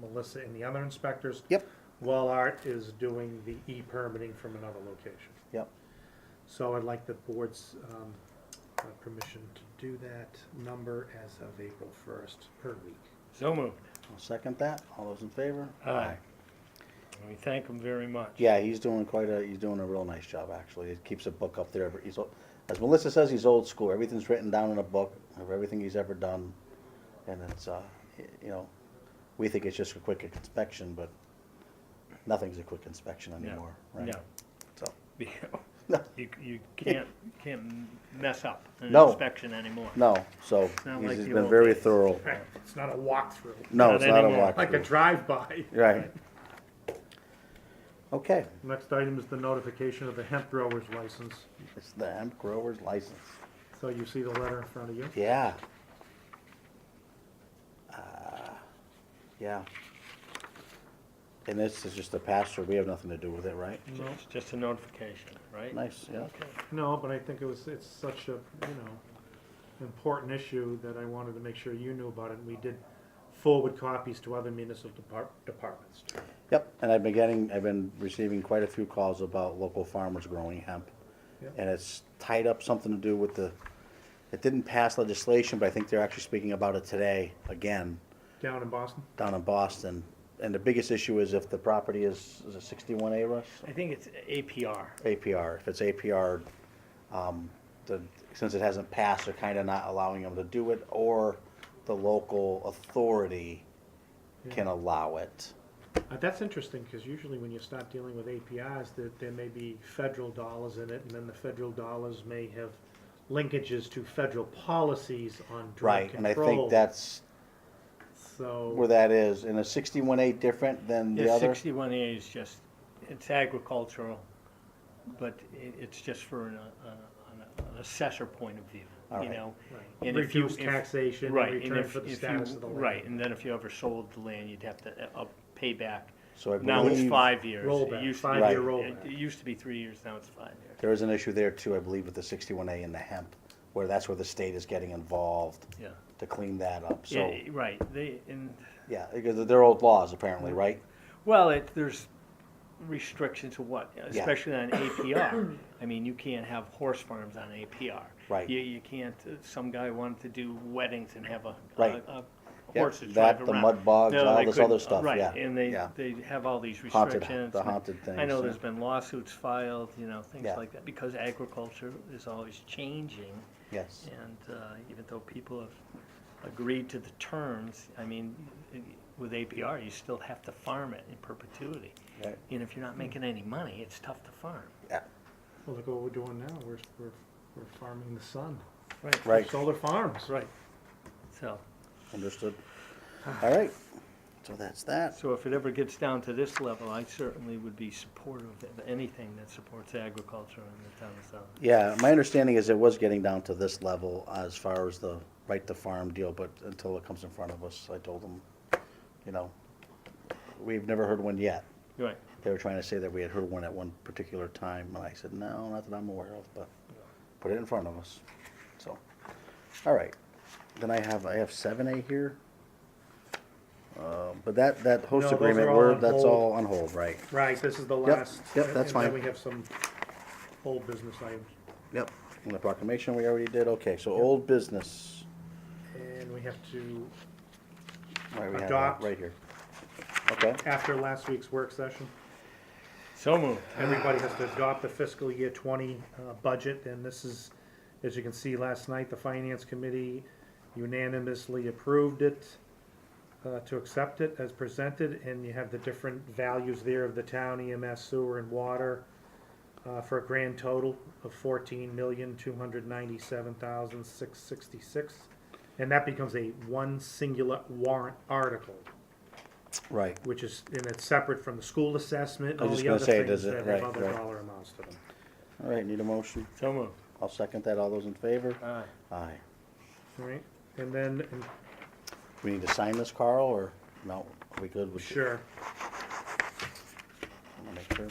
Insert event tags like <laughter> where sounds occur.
Melissa and the other inspectors. Yep. While Art is doing the e-permitting from another location. Yep. So I'd like the board's um, uh, permission to do that number as of April 1st per week. So moved. I'll second that. All those in favor? Aye. And we thank him very much. Yeah, he's doing quite a, he's doing a real nice job, actually. He keeps a book up there. He's, o- as Melissa says, he's old school. Everything's written down in a book of everything he's ever done. And it's, uh, y- you know, we think it's just a quick inspection, but nothing's a quick inspection No, anymore, right? <laughs> So, No, No. you, you can't, can't mess up an No. inspection anymore. no, so Not he's like he's the been old very days. <laughs> thorough. It's not a walkthrough, No, Not it's not a anymore. like a walkthrough. drive-by. Right. Okay, Next item is the notification of the hemp grower's license. it's the hemp grower's license. So you see the letter in front of you? Yeah. Uh, Yeah. And this is just a pasture, we have nothing to do with it, right? No, It's just a notification, right? Nice, yeah. Okay. No, but I think it was, it's such a, you know, important issue that I wanted to make sure you knew about it. And we did forward copies to other municipal depart- departments. Yep, and I've been getting, I've been receiving quite a few calls about local farmers growing hemp. Yeah. And it's tied up something to do with the, it didn't pass legislation, but I think they're actually speaking about it today, again, Down in Boston? down in Boston. And the biggest issue is if the property is, is it sixty-one A, Russ? I think it's APR. APR, if it's APR, um, the, since it hasn't passed, they're kinda not allowing them to do it, or the local authority can allow it. Uh, That's interesting, because usually when you start dealing with APIs, that there may be federal dollars in it, and then the federal dollars may have linkages to federal policies on drug Right, control. and I think that's where So, that is, and a sixty-one A different than the Yeah, other? sixty-one A is just, it's agricultural, but it, it's just for an, uh, uh, an assessor point of view, All you right. know? Right. And if you- Reduced if- taxation in right, and return if- for the if you- status of the land. Right, and then if you ever sold the land, you'd have to, uh, uh, pay back. So I Now it's believe- five years. It Rollback, used to be- five-year Right. rollback. It it used to be three years, now it's five years. There is an issue there too, I believe, with the sixty-one A and the hemp, where that's where the state is getting involved Yeah. to clean that up, so, Yeah, right, they, and, yeah, because they're old laws apparently, right? well, it, there's restrictions to what, especially on APR. <coughs> I mean, you can't have horse farms on APR. Right. You, you can't, uh, some guy wanted to do weddings and have a, a, Right. a Yep, horse to drive that, around. the mud bogs, No, all they this couldn't. other stuff, yeah, Right, and they, yeah. they have all these Haunted- restrictions. the and haunted I things, know yeah. there's been lawsuits filed, you know, things Yeah. like that, because agriculture is always changing. Yes, And uh, even though people have agreed to the terms, I mean, with APR, you still have to farm it in perpetuity. Right. And if you're not making any money, it's tough to farm. yeah, Well, look what we're doing now, we're, we're, we're farming the sun. Right. right. Solar farms, right. So, Understood. All right, so that's that. so if it ever gets down to this level, I certainly would be supportive of anything that supports agriculture in the town of South. Yeah, my understanding is it was getting down to this level as far as the right to farm deal, but until it comes in front of us, I told them, you know, we've never heard one yet. Right. They were trying to say that we had heard one at one particular time, and I said, no, not that I'm aware of, but put it in front of us, so. All right, then I have, I have seven A here. Uh, but that, that No, host those are agreement, all we're, on that's hold. all on hold, right? Right, this is the Yep, last. yep, and- that's And fine. then we have some old business items. Yep. And the proclamation we already did, okay, so old business. And we have to, Right, we have Adopt. it right here. Okay, after last week's work session, So moved. everybody has to adopt the fiscal year twenty, uh, budget, and this is, as you can see last night, the finance committee unanimously approved it, uh, to accept it as presented, and you have the different values there of the town EMS sewer and water, uh, for a grand total of fourteen million, two hundred ninety-seven thousand, six sixty-six. And that becomes a one singular warrant article. right. which is, and it's separate from the school assessment, I all was just the gonna other say, things does it- that right, have other right. dollar amounts to them. All right, need a motion? So moved. I'll second that. All those in favor? Aye. Aye. All right, and then, and- We need to sign this, Carl, or no? Are we good with? sure, Wanna make sure.